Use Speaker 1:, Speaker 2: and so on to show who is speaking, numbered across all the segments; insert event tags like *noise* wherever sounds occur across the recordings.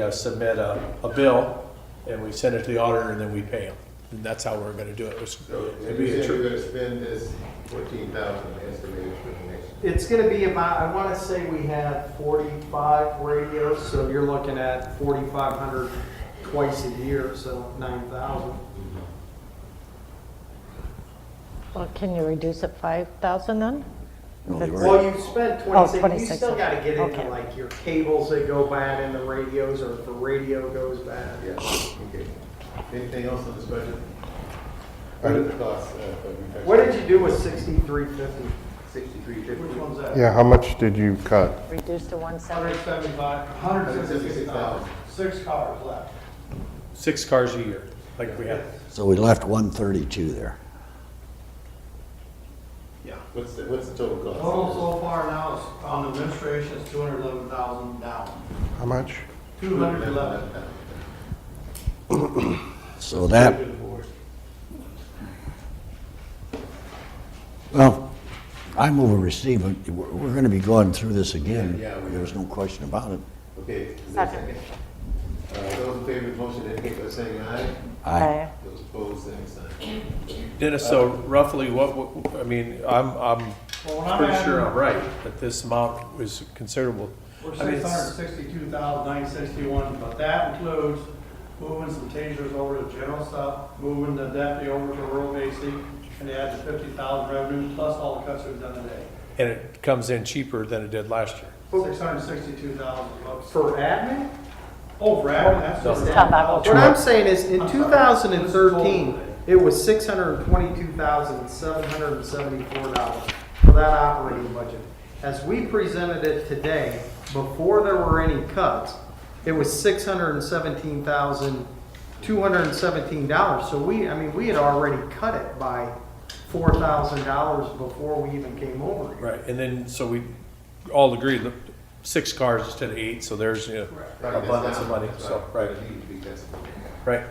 Speaker 1: uh, submit a, a bill, and we send it to the auditor, and then we pay them. And that's how we're gonna do it. It's-
Speaker 2: So
Speaker 1: it'd
Speaker 2: if
Speaker 1: be
Speaker 2: you
Speaker 1: a
Speaker 2: said you're
Speaker 1: tr-
Speaker 2: gonna spend this fourteen thousand estimated for the next,
Speaker 3: It's gonna be about, I wanna say we have forty-five radios, so you're looking at forty-five hundred twice a year, so nine thousand.
Speaker 4: Well, can you reduce it 5,000 then?
Speaker 5: No, you
Speaker 4: That's-
Speaker 5: already-
Speaker 3: Well, you spent
Speaker 4: Oh,
Speaker 3: twenty-six, you
Speaker 4: 26,
Speaker 3: still gotta get into
Speaker 4: okay.
Speaker 3: like your cables that go bad and the radios, or if the radio goes bad.
Speaker 2: yeah, okay. Anything else on this budget? What are the costs? uh, for reduction?
Speaker 3: What did you do with sixty-three fifty?
Speaker 2: Sixty-three fifty.
Speaker 3: Which one's that?
Speaker 6: Yeah, how much did you cut?
Speaker 4: Reduce to
Speaker 3: Hundred
Speaker 4: 170?
Speaker 3: seventy-five, hundred seventy-six dollars, six cars left.
Speaker 1: Six cars a year, like we have.
Speaker 5: So we left one thirty-two there.
Speaker 3: Yeah.
Speaker 2: What's the, what's the total cost?
Speaker 7: Total so far now is on administration is two hundred eleven thousand down,
Speaker 6: How much?
Speaker 7: two hundred eleven.
Speaker 5: So that, well, I move a receive, it. we're, we're gonna be going through this again.
Speaker 2: Yeah, we are.
Speaker 5: There's no question about it.
Speaker 2: Okay, is there a second? Uh, those in favor of the motion indicate by saying aye.
Speaker 5: I,
Speaker 2: Those opposed, same sign.
Speaker 1: Dennis, so roughly what, what- I mean, I'm, I'm
Speaker 7: Well, when I'm
Speaker 1: pretty sure I'm
Speaker 7: adding-
Speaker 1: right, that this amount was considerable.
Speaker 7: We're
Speaker 1: I mean,
Speaker 7: six
Speaker 1: it's-
Speaker 7: hundred sixty-two thousand nine sixty-one, but that includes moving some tasers over to general stuff, moving the deputy over to rural basic, and add the fifty thousand revenue plus all the cuts we've done today.
Speaker 1: And it comes in cheaper than it did last year.
Speaker 7: Six hundred sixty-two thousand bucks.
Speaker 3: For admin?
Speaker 7: Oh, Brad, that's.
Speaker 1: No.
Speaker 7: just-
Speaker 4: It's not that much.
Speaker 3: What I'm saying is, in
Speaker 7: I'm sorry.
Speaker 3: 2013, it was $622,774 for that operating budget. As we presented it today, before there were any cuts, it was $617,217. So we, I mean, we had already cut it by $4,000 before we even came over here.
Speaker 1: Right, and then, so we all agreed, look, six cars instead of eight, so there's, you know,
Speaker 2: Right, that's
Speaker 1: abundance
Speaker 2: down.
Speaker 1: of money,
Speaker 2: That's
Speaker 1: so, right,
Speaker 2: That needs to be tested.
Speaker 1: right.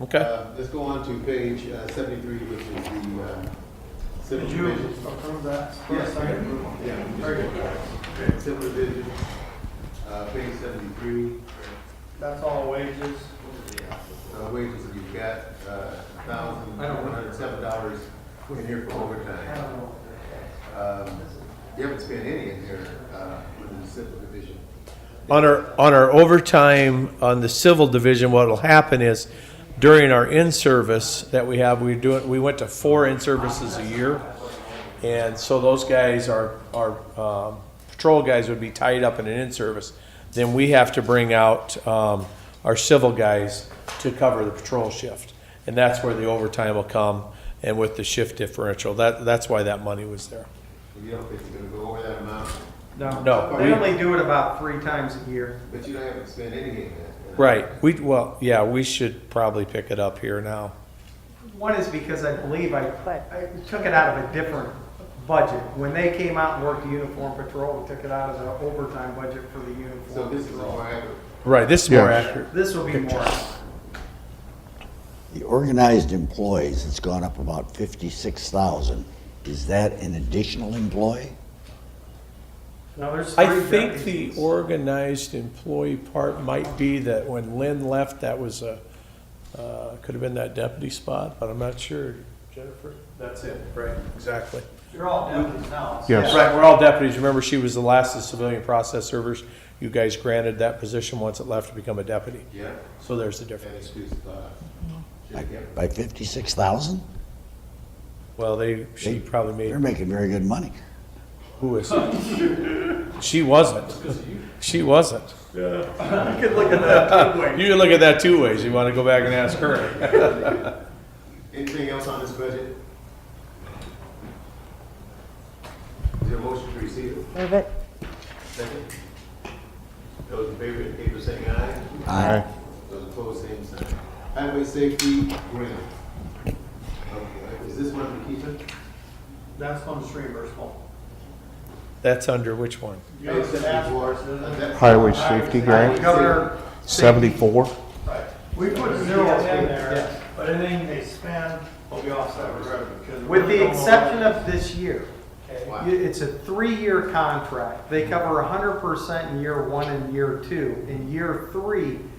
Speaker 1: Okay,
Speaker 2: Uh, Let's go on to page uh, seventy-three, which is the, uh, civil
Speaker 7: Did you
Speaker 2: division.
Speaker 7: approve that?
Speaker 2: Yes, I
Speaker 7: Second.
Speaker 2: approve. Yeah, we
Speaker 7: Very
Speaker 2: just
Speaker 7: good.
Speaker 2: go back. Civil division, uh, page seventy-three,
Speaker 7: That's all wages.
Speaker 2: uh, wages that you've got, uh, thousand,
Speaker 3: I don't
Speaker 2: one hundred seven dollars in here for overtime. Um, You haven't spent any in here, uh, in the civil division.
Speaker 1: on our, on our overtime, on the civil division, what'll happen is during our in-service that we have, we do it, we went to four in-services a year. And so those guys are, our um, patrol guys would be tied up in an in-service. Then we have to bring out, um, our civil guys to cover the patrol shift. And that's where the overtime will come and with the shift differential. That, that's why that money was there.
Speaker 2: You don't think you're gonna go over that amount,
Speaker 1: No,
Speaker 3: They
Speaker 1: we-
Speaker 3: only do it about three times a year.
Speaker 2: but you don't haven't spent any in that.
Speaker 1: Right, we, well, yeah, we should probably pick it up here now.
Speaker 3: One is because I believe I, I took it out of a different budget. When they came out and worked the uniform patrol, we took it out of the overtime budget for the
Speaker 2: So
Speaker 3: uniform
Speaker 2: this is all
Speaker 3: patrol.
Speaker 2: I have.
Speaker 1: Right, this is more
Speaker 6: Yes.
Speaker 1: accurate.
Speaker 3: This will be more.
Speaker 5: the organized employees, it's gone up about fifty-six thousand. Is that an additional employee?
Speaker 3: Now, there's three
Speaker 1: I think the
Speaker 3: deputies.
Speaker 1: organized employee part might be that when Lynn left, that was a, uh, could have been that deputy spot, but I'm not sure. Jennifer? That's it, right, exactly.
Speaker 7: You're all deputies now. so-
Speaker 6: Yes.
Speaker 1: Right, we're all deputies. Remember, she was the last of the civilian process servers. You guys granted that position once it left to become a deputy.
Speaker 2: Yeah,
Speaker 1: So there's the
Speaker 2: that
Speaker 1: difference.
Speaker 2: excuse thought. Should have kept
Speaker 5: By fifty-six thousand?
Speaker 1: Well, they, she probably made
Speaker 5: They're making very good money.
Speaker 1: Who is? she wasn't. She wasn't.
Speaker 3: *laughs* You could look at that.
Speaker 1: You can look at that two ways. You want to go back and ask her.
Speaker 2: Anything else on this budget? Is there a motion to receive it?
Speaker 4: Move it.
Speaker 2: Second? Those in favor, indicate by saying aye.
Speaker 5: I,
Speaker 2: Those opposed, same sign. Highway safety grant. Okay, Is this one for Keisha?
Speaker 7: That's on the stream versus
Speaker 1: That's under which one?
Speaker 7: You have the task force, isn't
Speaker 2: uh,
Speaker 7: it?
Speaker 6: Highway safety grant,
Speaker 3: Governor,
Speaker 6: seventy-four?
Speaker 7: We put zeros in
Speaker 3: Yes.
Speaker 7: there, but anything they spend will be offset with revenue. 'cause we
Speaker 3: with the
Speaker 7: don't know-
Speaker 3: exception of this year,
Speaker 7: Okay.
Speaker 3: you- it's a three-year contract. They cover 100% in year one and year two. In year three,